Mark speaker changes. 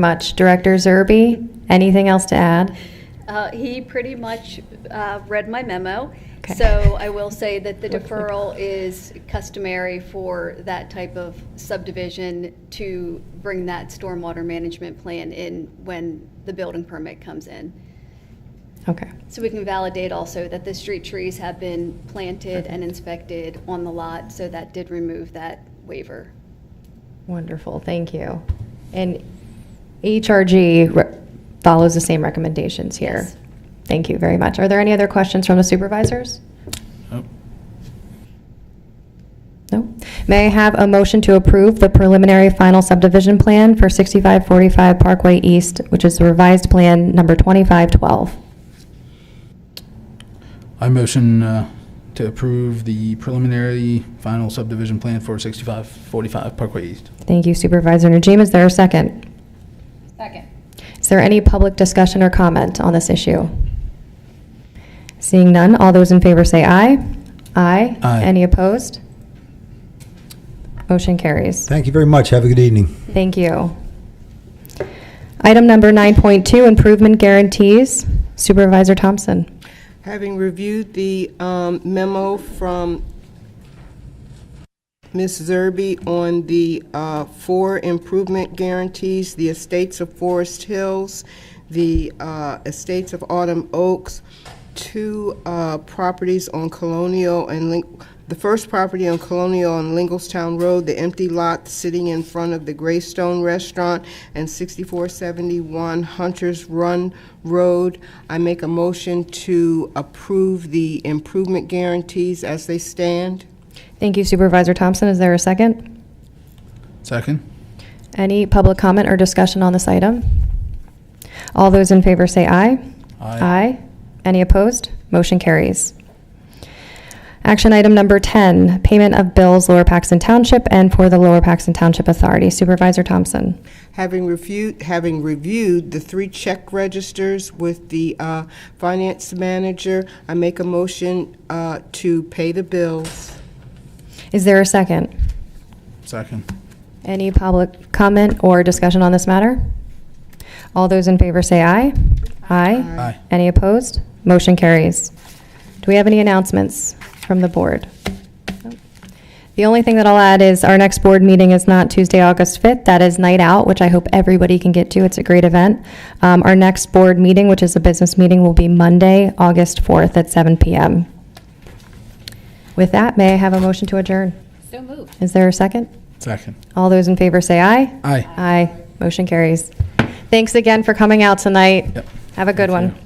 Speaker 1: very much. Director Zerby, anything else to add?
Speaker 2: Uh, He pretty much uh, read my memo,
Speaker 1: Okay.
Speaker 2: so I will say that the deferral is customary for that type of subdivision to bring that stormwater management plan in when the building permit comes in.
Speaker 1: Okay,
Speaker 2: So we can validate also that the street trees have been planted and inspected on the lot, so that did remove that waiver.
Speaker 1: wonderful, thank you. And HRG re- follows the same recommendations here.
Speaker 2: Yes.
Speaker 1: Thank you very much. Are there any other questions from the supervisors?
Speaker 3: Oh,
Speaker 1: No? May I have a motion to approve the preliminary final subdivision plan for 6545 Parkway East, which is the revised plan number 2512?
Speaker 3: I motion uh, to approve the preliminary final subdivision plan for 6545 Parkway East.
Speaker 1: Thank you Supervisor Najim. Is there a second?
Speaker 2: Second.
Speaker 1: Is there any public discussion or comment on this issue? Seeing none, all those in favor say aye. Aye.
Speaker 3: Aye.
Speaker 1: Any opposed? Motion carries.
Speaker 4: Thank you very much. Have a good evening.
Speaker 1: Thank you. Item number 9.2, improvement guarantees. Supervisor Thompson.
Speaker 5: Having reviewed the um, memo from Ms. Zerby on the uh, four improvement guarantees, the estates of Forest Hills, the uh, estates of Autumn Oaks, two uh, properties on Colonial and, Lin- the first property on Colonial on Lingelstown Road, the empty lot sitting in front of the Greystone Restaurant, and 6471 Hunters Run Road. I make a motion to approve the improvement guarantees as they stand.
Speaker 1: Thank you Supervisor Thompson. Is there a second?
Speaker 3: Second?
Speaker 1: Any public comment or discussion on this item? All those in favor say aye. Aye. Any opposed? Motion carries. Action item number 10, payment of bills Lower Paxton Township and for the Lower Paxton Township Authority. Supervisor Thompson.
Speaker 5: Having reviewed, having reviewed the three check registers with the uh, finance manager, I make a motion uh, to pay the bills.
Speaker 1: Is there a second?
Speaker 3: Second.
Speaker 1: Any public comment or discussion on this matter? All those in favor say aye. Aye.
Speaker 3: Aye.
Speaker 1: Any opposed? Motion carries. Do we have any announcements from the board? Nope. The only thing that I'll add is our next board meeting is not Tuesday, August 5th. That is Night Out, which I hope everybody can get to. It's a great event. Um, Our next board meeting, which is a business meeting, will be Monday, August 4th at 7 PM. With that, may I have a motion to adjourn?
Speaker 6: So moved.
Speaker 1: Is there a second?
Speaker 3: Second.
Speaker 1: All those in favor say aye.
Speaker 3: Aye.
Speaker 1: Aye. Motion carries. Thanks again for coming out tonight.
Speaker 3: Yep.
Speaker 1: Have a good
Speaker 3: Thank
Speaker 1: one.
Speaker 3: you.